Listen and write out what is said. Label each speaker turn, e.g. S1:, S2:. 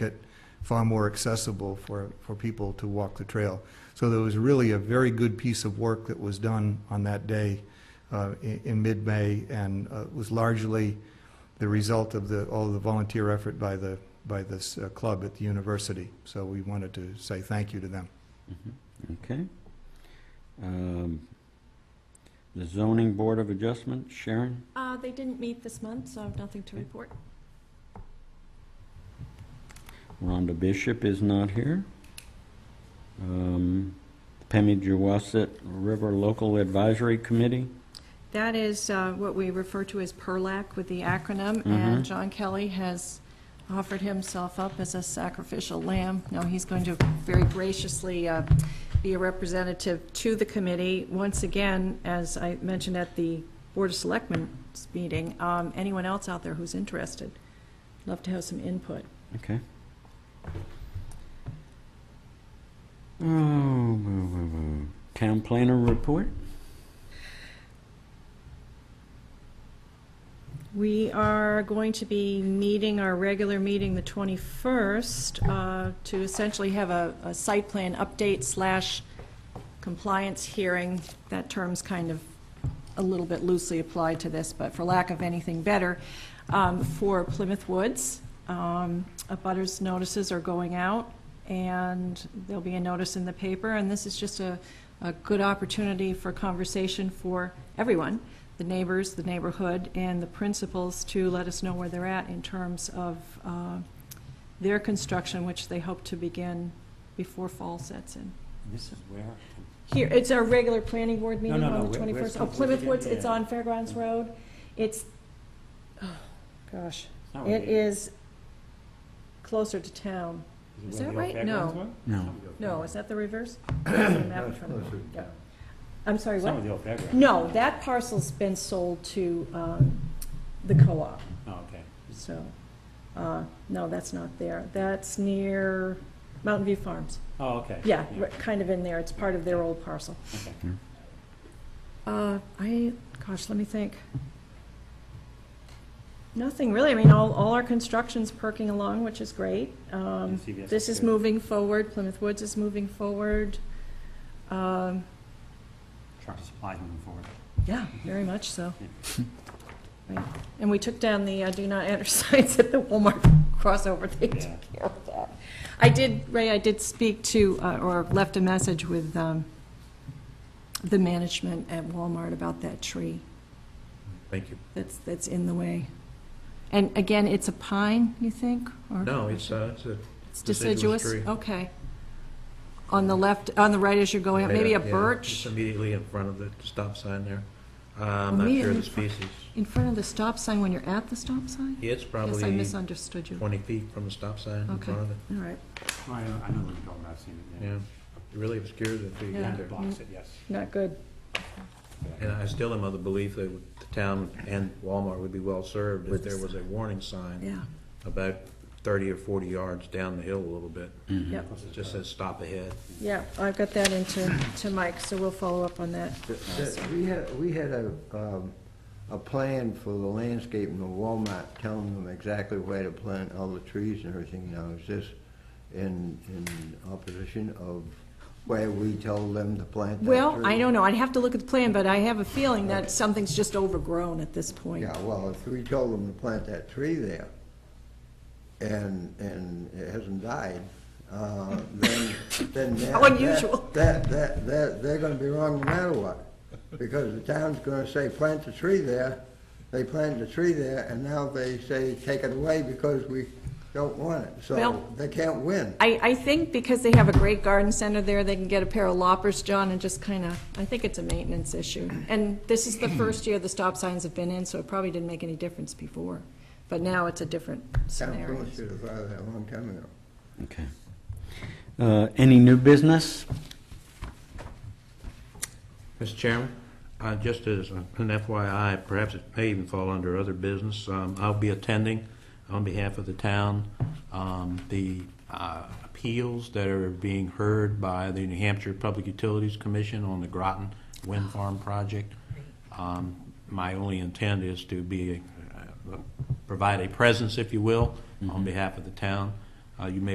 S1: it far more accessible for, for people to walk the trail. So there was really a very good piece of work that was done on that day uh, in, in mid-May, and uh, was largely the result of the, all the volunteer effort by the, by this uh, club at the university. So we wanted to say thank you to them.
S2: Mm-hmm. Okay. Um, The zoning board of adjustment, Sharon?
S3: Uh, they didn't meet this month, so I have nothing to report.
S2: Rhonda Bishop is not here. Um, Pemmy Jawasset River Local Advisory Committee?
S3: That is uh, what we refer to as PERLAC with the acronym,
S2: Mhm.
S3: and John Kelly has offered himself up as a sacrificial lamb. No, he's going to very graciously uh, be a representative to the committee. Once again, as I mentioned at the Board of Selectmen's meeting, um, anyone else out there who's interested, love to have some input.
S2: Okay. Oh, boo, boo, boo. Town planner report?
S3: We are going to be meeting, our regular meeting, the 21st, uh, to essentially have a a site plan update slash compliance hearing. That term's kind of a little bit loosely applied to this, but for lack of anything better, um, for Plymouth Woods. Um, Abutters notices are going out, and there'll be a notice in the paper, and this is just a, a good opportunity for conversation for everyone, the neighbors, the neighborhood, and the principals to let us know where they're at in terms of uh, their construction, which they hope to begin before fall sets in.
S2: This is where?
S3: Here, it's our regular planning board meeting
S2: no, no, where-
S3: on the
S2: where's
S3: twenty-first. Oh,
S2: Plymouth Woods again?
S3: Plymouth Woods, it's
S2: Yeah.
S3: on Fairgrounds Road. It's, oh, gosh,
S4: Oh,
S3: it is closer to town. is
S4: it where
S3: that
S4: the
S3: right?
S4: fairgrounds
S3: No.
S4: were?
S2: No.
S3: No, is that the reverse? I don't have a map in front of me. Yeah. I'm sorry,
S4: Some
S3: what?
S4: of the old fairgrounds.
S3: No, that parcel's been sold to, um, the co-op,
S4: Oh, okay.
S3: so, uh, no, that's not there. That's near Mountain View Farms.
S4: Oh, okay.
S3: Yeah, ri- kind of in there, it's part of their old parcel.
S4: Okay.
S2: Hmm.
S3: Uh, I, gosh, let me think. Nothing really, I mean, all, all our construction's perking along, which is great. Um,
S4: And CVS
S3: This is
S4: good.
S3: moving forward, Plymouth Woods is moving forward. Um,
S4: Tractor supply moving forward.
S3: Yeah, very much so. Right. And we took down the uh, do not enter signs at the Walmart crossover, they took
S4: Yeah.
S3: care of that. I did, Ray, I did speak to, uh, or left a message with um, the management at Walmart about that tree
S5: Thank you.
S3: that's, that's in the way. And again, it's a pine, you think? or-
S5: No, it's, uh, it's a,
S3: It's deciduous?
S5: deciduous tree.
S3: Okay. On the left, on the right as you're going, up, maybe a
S5: yeah,
S3: birch?
S5: It's immediately in front of the stop sign there. Uh, I'm not sure
S3: Immediately
S5: of the
S3: in front-
S5: species.
S3: In front of the stop sign when you're at the stop sign?
S5: It's
S3: Yes, I
S5: probably
S3: misunderstood you. All
S5: twenty feet from the stop sign in
S3: Okay.
S5: front of it.
S3: right.
S4: Oh, I know, I know what you're talking about, I've seen it, yeah.
S5: Yeah, it really obscures it. if you
S3: Yeah.
S5: get
S4: Yeah,
S5: there.
S4: blocks it, yes.
S3: Not good.
S5: And I still am of the belief that the town and Walmart would be well-served if
S3: With the
S5: there was a warning sign
S3: Yeah.
S5: about thirty or forty yards down the hill a little bit.
S3: Yep.
S5: It just says stop ahead.
S3: Yeah, I've got that into, to Mike, so we'll follow up on that.
S6: Th- th- We had, we had a, um, a plan for the landscaping of Walmart, telling them exactly where to plant all the trees and everything. Now, is this in, in opposition of where we told them to plant that tree?
S3: Well, I don't know, I'd have to look at the plan, but I have a feeling that something's just overgrown at this point.
S6: Yeah, well, if we told them to plant that tree there, and, and it hasn't died, uh, then, then that...
S3: How unusual.
S6: That, that, that, they're gonna be wrong no matter what, because the town's gonna say, plant the tree there, they planted the tree there, and now they say, take it away because we don't want it,
S3: Well-
S6: so they can't win.
S3: I, I think because they have a great garden center there, they can get a pair of loppers, John, and just kind of, I think it's a maintenance issue. And this is the first year the stop signs have been in, so it probably didn't make any difference before. But now it's a different
S6: Town
S3: scenario.
S6: should have filed that a long time ago.
S2: Okay. Uh, Any new business?
S5: Mr. Chairman, uh, just as an FYI, perhaps it may even fall under other business, um, I'll be attending on behalf of the town, um, the uh, appeals that are being heard by the New Hampshire Public Utilities Commission on the Groton Wind Farm project. Um, My only intent is to be, uh, provide a presence, if you will, on behalf of the town. Uh, Uh, You may